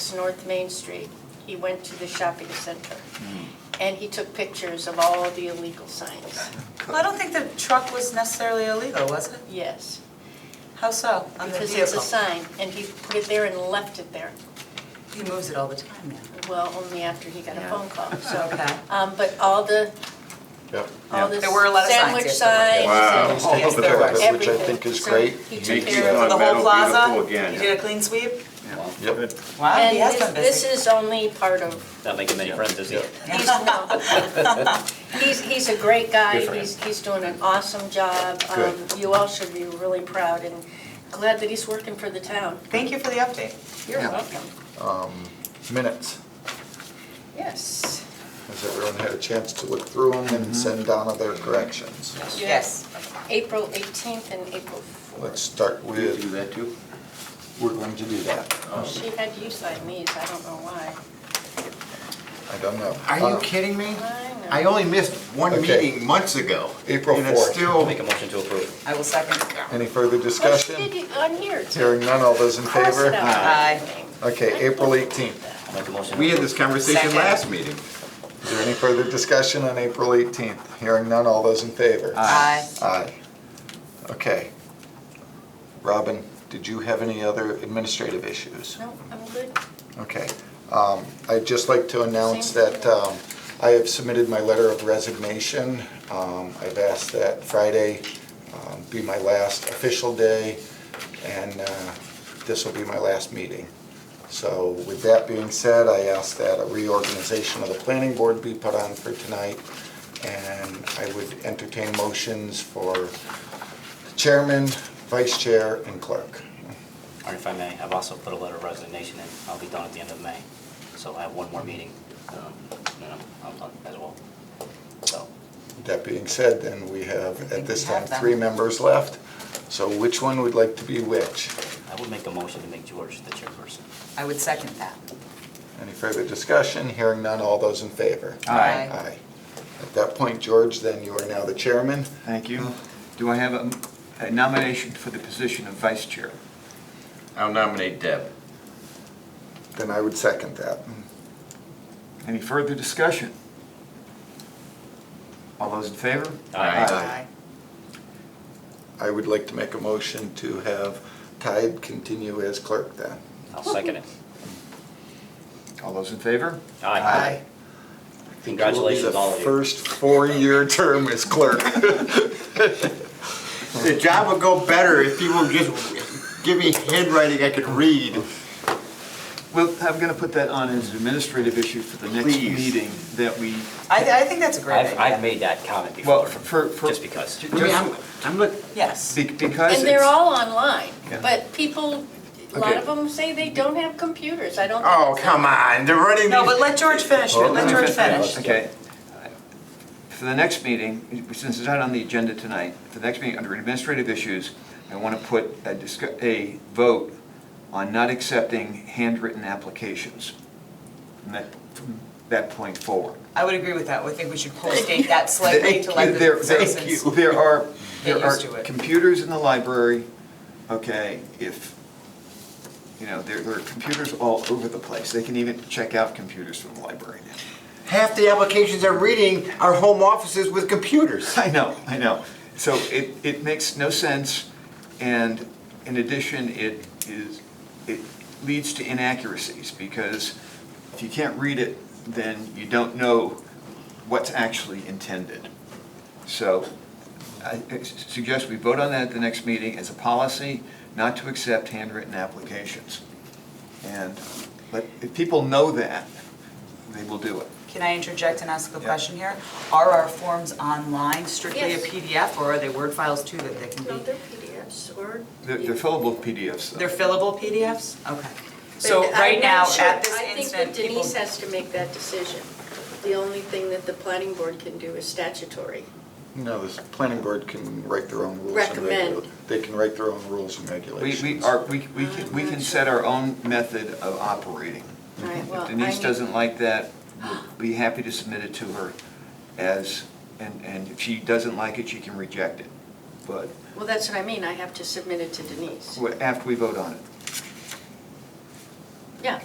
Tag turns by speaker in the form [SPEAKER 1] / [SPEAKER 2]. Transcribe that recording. [SPEAKER 1] towards North Main Street, he went to the shopping center.
[SPEAKER 2] Hmm.
[SPEAKER 1] And he took pictures of all the illegal signs,
[SPEAKER 3] Well, I don't think the truck was necessarily illegal, was it?
[SPEAKER 1] yes.
[SPEAKER 3] How so? On the
[SPEAKER 1] Because it's a
[SPEAKER 3] vehicle?
[SPEAKER 1] sign, and he put it there and left it there.
[SPEAKER 3] He moves it all the time now.
[SPEAKER 1] Well, only after he got a
[SPEAKER 3] Yeah.
[SPEAKER 1] phone call, so.
[SPEAKER 3] Okay.
[SPEAKER 1] Um, but all the,
[SPEAKER 2] Yep.
[SPEAKER 1] all the
[SPEAKER 3] There were a lot of signs,
[SPEAKER 1] sandwich
[SPEAKER 3] yes,
[SPEAKER 1] signs.
[SPEAKER 3] there
[SPEAKER 1] and
[SPEAKER 2] Wow.
[SPEAKER 3] Oh, yes, there was.
[SPEAKER 2] Look at that, Which I
[SPEAKER 1] everything.
[SPEAKER 2] think is
[SPEAKER 1] So
[SPEAKER 2] great.
[SPEAKER 1] he took
[SPEAKER 4] Makes
[SPEAKER 1] care of
[SPEAKER 4] you
[SPEAKER 3] For the
[SPEAKER 4] Metal
[SPEAKER 3] whole plaza,
[SPEAKER 4] beautiful
[SPEAKER 3] he
[SPEAKER 4] again,
[SPEAKER 3] did a clean sweep?
[SPEAKER 2] Yep.
[SPEAKER 3] Wow, he has been
[SPEAKER 1] And this, this
[SPEAKER 3] busy.
[SPEAKER 1] is only part of,
[SPEAKER 5] Not making many friends, is he?
[SPEAKER 2] Yeah.
[SPEAKER 1] he's, no. He's, he's a great guy,
[SPEAKER 2] Good for him.
[SPEAKER 1] he's, he's doing an awesome job. Um,
[SPEAKER 2] Good.
[SPEAKER 1] You all should be really proud and glad that he's working for the town.
[SPEAKER 3] Thank you for the update.
[SPEAKER 1] You're
[SPEAKER 2] Yeah.
[SPEAKER 1] welcome.
[SPEAKER 2] Minutes.
[SPEAKER 1] Yes.
[SPEAKER 2] Has everyone had a chance to look through them
[SPEAKER 4] Mm-hmm.
[SPEAKER 2] and send down their corrections?
[SPEAKER 3] Yes.
[SPEAKER 1] April 18th and April 4th.
[SPEAKER 2] Let's start
[SPEAKER 4] You do
[SPEAKER 2] with,
[SPEAKER 4] that too?
[SPEAKER 2] we're going to do that.
[SPEAKER 1] She had you sign these, I don't know why.
[SPEAKER 2] I don't know.
[SPEAKER 4] Are you
[SPEAKER 2] Uh,
[SPEAKER 4] kidding me?
[SPEAKER 1] I know.
[SPEAKER 4] I only missed one
[SPEAKER 2] Okay.
[SPEAKER 4] meeting months ago.
[SPEAKER 2] April
[SPEAKER 4] And it's
[SPEAKER 2] 4th.
[SPEAKER 5] I'll
[SPEAKER 4] still,
[SPEAKER 5] make a motion to approve.
[SPEAKER 3] I will second.
[SPEAKER 2] Any
[SPEAKER 1] Oh, she
[SPEAKER 2] further
[SPEAKER 1] did
[SPEAKER 2] discussion?
[SPEAKER 1] it on here. too.
[SPEAKER 2] Hearing none, all those in
[SPEAKER 1] Of course
[SPEAKER 2] favor?
[SPEAKER 1] it
[SPEAKER 4] Aye.
[SPEAKER 1] outlined.
[SPEAKER 2] Okay, April 18th.
[SPEAKER 5] I'll make a motion. to
[SPEAKER 4] we had
[SPEAKER 5] approve.
[SPEAKER 4] this conversation
[SPEAKER 3] Second.
[SPEAKER 4] last meeting.
[SPEAKER 2] Is there any further discussion on April 18th? Hearing none, all those in favor?
[SPEAKER 3] Aye.
[SPEAKER 2] Aye. Okay. Robin, did you have any other administrative issues?
[SPEAKER 1] No, I'm good.
[SPEAKER 2] Okay. Um, I'd just like to announce
[SPEAKER 1] Same.
[SPEAKER 2] that um, I have submitted my letter of resignation. Um, I've asked that Friday um, be my last official day, and uh, this will be my last meeting. So with that being said, I ask that a reorganization of the planning board be put on for tonight, and I would entertain motions for chairman, vice chair, and clerk.
[SPEAKER 5] Or if I may, I've also put a letter of resignation in. I'll be done at the end of May. So I have one more meeting, um, and I'm- I'm done as well. So,
[SPEAKER 2] That being said, then we have, at
[SPEAKER 3] think
[SPEAKER 2] this
[SPEAKER 3] we have
[SPEAKER 2] time,
[SPEAKER 3] them.
[SPEAKER 2] three members left. So which one would like to be which?
[SPEAKER 5] I would make a motion to make George the chairperson.
[SPEAKER 3] I would second that.
[SPEAKER 2] Any further discussion? Hearing none, all those in favor?
[SPEAKER 3] Aye.
[SPEAKER 2] Aye. At that point, George, then you are now the chairman.
[SPEAKER 6] Thank you. Do I have a- a nomination for the position of vice chair?
[SPEAKER 4] I'll nominate Deb.
[SPEAKER 2] Then I would second that.
[SPEAKER 6] Any further discussion? All those in favor?
[SPEAKER 5] Aye.
[SPEAKER 2] Aye. I would like to make a motion to have Tide continue as clerk then.
[SPEAKER 5] I'll second it.
[SPEAKER 6] All those in favor?
[SPEAKER 5] Aye. Congratulations, all of
[SPEAKER 2] The
[SPEAKER 5] you.
[SPEAKER 2] first four-year term as clerk.
[SPEAKER 4] The job would go better if you would just give me handwriting I could read.
[SPEAKER 6] Well, I'm going to put that on as an administrative issue for the next
[SPEAKER 4] Please.
[SPEAKER 6] meeting that we,
[SPEAKER 3] I, I think that's a great
[SPEAKER 5] I've,
[SPEAKER 3] idea.
[SPEAKER 5] I've made that comment
[SPEAKER 6] well,
[SPEAKER 5] before,
[SPEAKER 6] for, for.
[SPEAKER 5] just because.
[SPEAKER 6] ju-
[SPEAKER 4] I mean, I'm,
[SPEAKER 6] just
[SPEAKER 4] I'm look,
[SPEAKER 3] Yes.
[SPEAKER 6] be- Because
[SPEAKER 1] And they're
[SPEAKER 6] it's-
[SPEAKER 1] all online,
[SPEAKER 6] Yeah.
[SPEAKER 1] but people, a lot
[SPEAKER 2] Okay.
[SPEAKER 1] of them say they don't have computers. I don't. think
[SPEAKER 4] oh,
[SPEAKER 1] it's that-
[SPEAKER 4] come on, they're running
[SPEAKER 3] No, but
[SPEAKER 4] these.
[SPEAKER 3] let George finish.
[SPEAKER 2] Well,
[SPEAKER 3] Let George finish.
[SPEAKER 6] Okay. For the next meeting, since it's not on the agenda tonight, for the next meeting, under administrative issues, I want to put a discu- a vote on not accepting handwritten applications from that, from that point forward.
[SPEAKER 3] I would agree with that. I think we should postdate that slightly
[SPEAKER 6] There
[SPEAKER 3] to let
[SPEAKER 6] there-
[SPEAKER 3] the
[SPEAKER 6] there-
[SPEAKER 3] citizens.
[SPEAKER 6] There are,
[SPEAKER 3] Get
[SPEAKER 6] there are
[SPEAKER 3] used to it.
[SPEAKER 6] computers in the library, okay, if, you know, there there are computers all over the place. They can even check out computers from the library now.
[SPEAKER 4] Half the applications I'm reading are home offices with computers.
[SPEAKER 6] I know, I know. So it, it makes no sense, and in addition, it is, it leads to inaccuracies, because if you can't read it, then you don't know what's actually intended. So I I suggest we vote on that at the next meeting as a policy, not to accept handwritten applications. And let, if people know that, they will do it.
[SPEAKER 3] Can I interject and ask a
[SPEAKER 6] Yeah.
[SPEAKER 3] question here? Are our forms online strictly a
[SPEAKER 1] Yes.
[SPEAKER 3] PDF or are they Word files too that they can
[SPEAKER 1] No,
[SPEAKER 3] be?
[SPEAKER 1] they're PDFs or.
[SPEAKER 6] They're they're fillable PDFs, though.
[SPEAKER 3] They're fillable PDFs? Okay.
[SPEAKER 1] But
[SPEAKER 3] So
[SPEAKER 1] I'm
[SPEAKER 3] right
[SPEAKER 1] not
[SPEAKER 3] now,
[SPEAKER 1] sure.
[SPEAKER 3] at this
[SPEAKER 1] I
[SPEAKER 3] instant,
[SPEAKER 1] think that
[SPEAKER 3] people.
[SPEAKER 1] Denise has to make that decision. The only thing that the planning board can do is statutory.
[SPEAKER 2] No, the planning board can write their own rules and
[SPEAKER 1] Recommend.
[SPEAKER 2] regulations. They can write their own rules and
[SPEAKER 6] We,
[SPEAKER 2] regulations.
[SPEAKER 6] we are, we, we can, we can set our own method of operating.
[SPEAKER 1] All right, well,
[SPEAKER 6] If
[SPEAKER 1] I
[SPEAKER 6] Denise
[SPEAKER 1] need-
[SPEAKER 6] doesn't like that, we'll be happy to submit it to her as, and, and if she doesn't like it, she can reject it. But
[SPEAKER 1] Well, that's what I mean, I have to submit it to Denise.
[SPEAKER 6] wha- after we vote on it.